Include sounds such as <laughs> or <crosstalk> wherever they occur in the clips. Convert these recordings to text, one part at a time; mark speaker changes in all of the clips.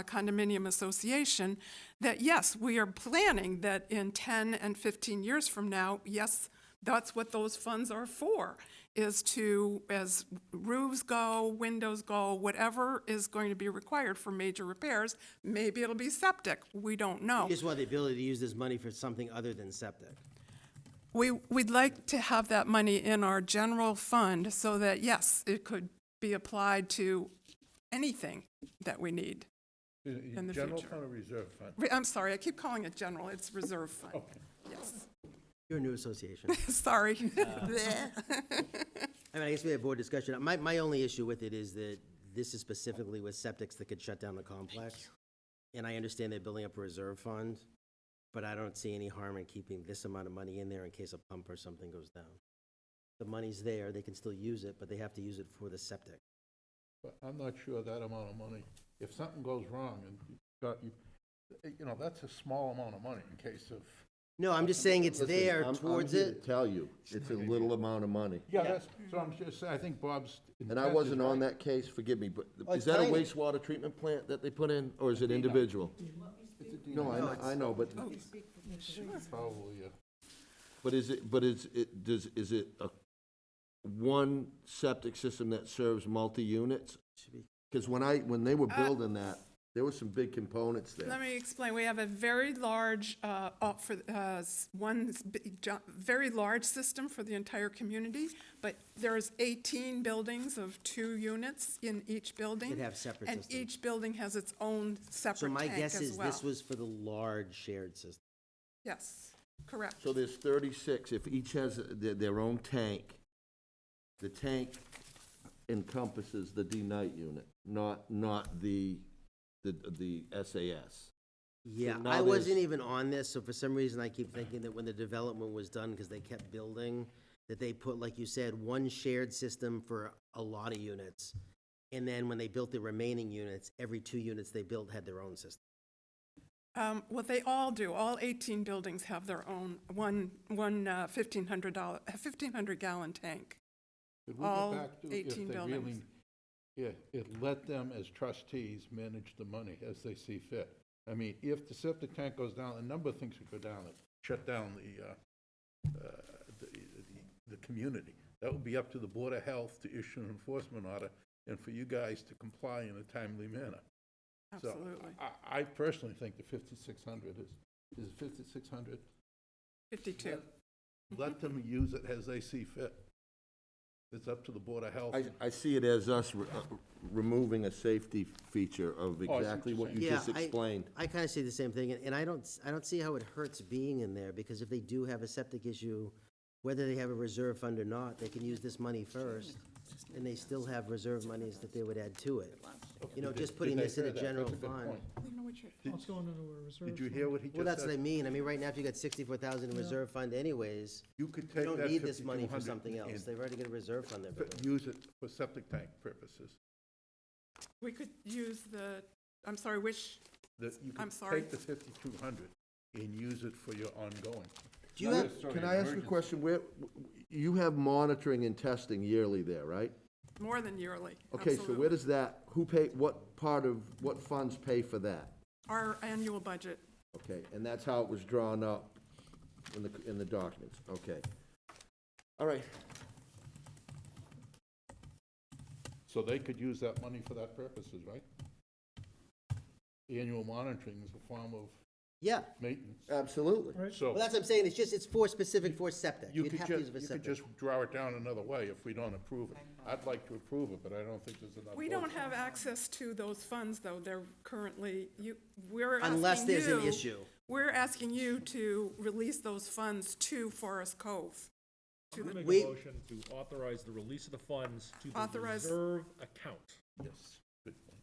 Speaker 1: a condominium association, that yes, we are planning that in 10 and 15 years from now, yes, that's what those funds are for, is to, as roofs go, windows go, whatever is going to be required for major repairs, maybe it'll be septic, we don't know.
Speaker 2: You just want the ability to use this money for something other than septic.
Speaker 1: We, we'd like to have that money in our general fund so that, yes, it could be applied to anything that we need. in the
Speaker 3: General
Speaker 1: future.
Speaker 3: fund or reserve fund?
Speaker 1: Re- I'm sorry, I keep calling it general, it's reserve fund.
Speaker 3: Okay.
Speaker 1: Yes,
Speaker 2: You're a new association. <laughs>
Speaker 1: sorry.
Speaker 2: I mean, I guess we have board discussion. My, my only issue with it is that this is specifically with septics that could shut down the complex. And I understand they're building up a reserve fund, but I don't see any harm in keeping this amount of money in there in case a pump or something goes down. The money's there, they can still use it, but they have to use it for the septic.
Speaker 3: But I'm not sure that amount of money, if something goes wrong and you got, you, you know, that's a small amount of money in case of.
Speaker 2: No, I'm just saying it's
Speaker 4: Listen,
Speaker 2: there
Speaker 4: I'm- I'm
Speaker 2: towards
Speaker 4: here to
Speaker 2: it.
Speaker 4: Tell you, it's a little amount of money.
Speaker 3: Yeah, that's, so I'm just saying, I think Bob's.
Speaker 4: And I
Speaker 3: intent is
Speaker 4: wasn't on
Speaker 3: right.
Speaker 4: that case, forgive me, but
Speaker 2: Oh,
Speaker 4: is that a
Speaker 2: tiny.
Speaker 4: wastewater treatment plant that they put in, or is it individual? No, I, know- I know, but,
Speaker 3: Probably, uh,
Speaker 4: but is it, but is it, does, is it a one septic system that serves multi-units? Because when I, when they were building that, there were some big components there.
Speaker 1: Let me explain. We have a very large, uh, op- for, uh, s- one s- bi- jo- very large system for the entire community, but there's 18 buildings of two units in each building.
Speaker 2: have separate systems.
Speaker 1: And each building has its own
Speaker 2: So
Speaker 1: separate
Speaker 2: my
Speaker 1: tank as
Speaker 2: guess
Speaker 1: well.
Speaker 2: is this was for the large shared system.
Speaker 1: Yes, correct.
Speaker 4: So there's thirty-six, if each has their, their own tank, the tank encompasses the D-night unit, not, not the, the, the SAS.
Speaker 2: Yeah,
Speaker 4: now
Speaker 2: I
Speaker 4: there's-
Speaker 2: wasn't even on this, so for some reason I keep thinking that when the development was done, because they kept building, that they put, like you said, one shared system for a lot of units. And then when they built the remaining units, every two units they built had their own system.
Speaker 1: Um, What they all do, all 18 buildings have their own, one, one uh, 1,500 dollar, 1,500 gallon tank.
Speaker 3: could we go
Speaker 1: All
Speaker 3: back to
Speaker 1: 18
Speaker 3: if they really,
Speaker 1: buildings.
Speaker 3: yeah, it let them as trustees manage the money as they see fit. I mean, if the septic tank goes down, a number of things could go down, It shut down the, uh, uh, the, the, the community. That would be up to the Board of Health to issue an enforcement order and for you guys to comply in a timely manner. So
Speaker 1: Absolutely.
Speaker 3: I, I personally think the fifty-six hundred is, is fifty-six hundred.
Speaker 1: 52.
Speaker 3: Let them use it as they see fit. It's up to the Board of Health.
Speaker 4: I, I see it as us re- uh, removing a safety feature of
Speaker 3: Oh, what
Speaker 4: exactly
Speaker 3: you're
Speaker 4: what you
Speaker 2: Yeah,
Speaker 4: just
Speaker 2: I-
Speaker 4: explained.
Speaker 2: I kind of see the same thing, and- and I don't, s- I don't see how it hurts being in there, because if they do have a septic issue, whether they have a reserve fund or not, they can use this money first, and they still have reserve monies that they would add to it. You know,
Speaker 3: Did-
Speaker 2: just
Speaker 3: did
Speaker 2: putting
Speaker 3: they
Speaker 2: this in
Speaker 3: hear
Speaker 2: a
Speaker 3: that?
Speaker 2: general
Speaker 3: That's a good
Speaker 2: fund.
Speaker 3: point.
Speaker 5: Well, It's going into a reserve.
Speaker 3: Did you
Speaker 5: fund.
Speaker 3: hear what he
Speaker 2: Well,
Speaker 3: just
Speaker 2: that's what I
Speaker 3: said?
Speaker 2: mean, I mean, right now, if you got sixty-four thousand in reserve fund anyways,
Speaker 3: You could
Speaker 2: you
Speaker 3: take
Speaker 2: don't
Speaker 3: that
Speaker 2: need this money for
Speaker 3: 5200
Speaker 2: something else,
Speaker 3: and
Speaker 2: they've already got a reserve fund there.
Speaker 3: put- Use it for septic tank purposes.
Speaker 1: We could use the, I'm sorry, which,
Speaker 3: That you
Speaker 1: I'm
Speaker 3: could
Speaker 1: sorry.
Speaker 3: take the fifty-two hundred and use it for your ongoing.
Speaker 2: Do you
Speaker 3: Not
Speaker 2: have-
Speaker 3: necessarily
Speaker 4: Can I ask you a
Speaker 3: emergency.
Speaker 4: question? Where, you have monitoring and testing yearly there, right?
Speaker 1: more than yearly.
Speaker 4: Okay, so
Speaker 1: absolutely.
Speaker 4: where does that, who pay, what part of, what funds pay for that?
Speaker 1: Our annual budget,
Speaker 4: Okay, and that's how it was drawn up in the, in the documents, okay. All right,
Speaker 3: So they could use that money for that purposes, right? Annual monitoring is a form of
Speaker 2: Yeah,
Speaker 3: maintenance.
Speaker 4: absolutely.
Speaker 5: Right.
Speaker 3: So
Speaker 2: well, that's what I'm saying, it's just, it's for specific, for septic,
Speaker 3: you
Speaker 2: you'd
Speaker 3: could
Speaker 2: have to use
Speaker 3: just,
Speaker 2: it for
Speaker 3: you could
Speaker 2: septic.
Speaker 3: just draw it down another way if we don't approve it. I'd like to approve it, but I don't think there's enough.
Speaker 1: we
Speaker 3: votes.
Speaker 1: don't have access to those funds, though, they're currently, you, we're asking you.
Speaker 2: Unless there's an issue.
Speaker 1: We're asking you to release those funds to Forest Cove. to the-
Speaker 6: Make
Speaker 2: We-
Speaker 6: a motion to authorize the release of the funds to the
Speaker 1: Authorize-
Speaker 6: reserve account.
Speaker 3: Yes. Good point.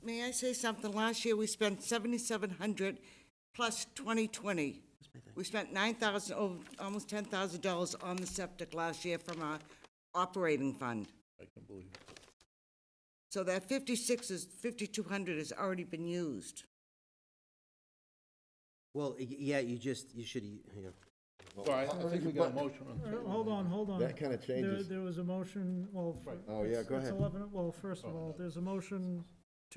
Speaker 7: May I say something? Last year, we spent seventy-seven hundred plus twenty twenty. We spent nine thousand, oh, almost ten thousand dollars on the septic last year from our operating fund.
Speaker 3: I can believe it.
Speaker 7: So that fifty-six is, fifty-two hundred has already been used.
Speaker 2: Well, y- yeah, you just, you should, you know,
Speaker 3: So I I think we got a motion on the
Speaker 5: All right,
Speaker 3: table.
Speaker 5: Hold on, hold on.
Speaker 4: That kinda
Speaker 5: There-
Speaker 4: changes.
Speaker 5: There was a motion, well. f-
Speaker 3: Right.
Speaker 4: Oh, yeah,
Speaker 5: it's-
Speaker 4: go
Speaker 5: it's
Speaker 4: ahead.
Speaker 5: 11 well, first of all, there's a motion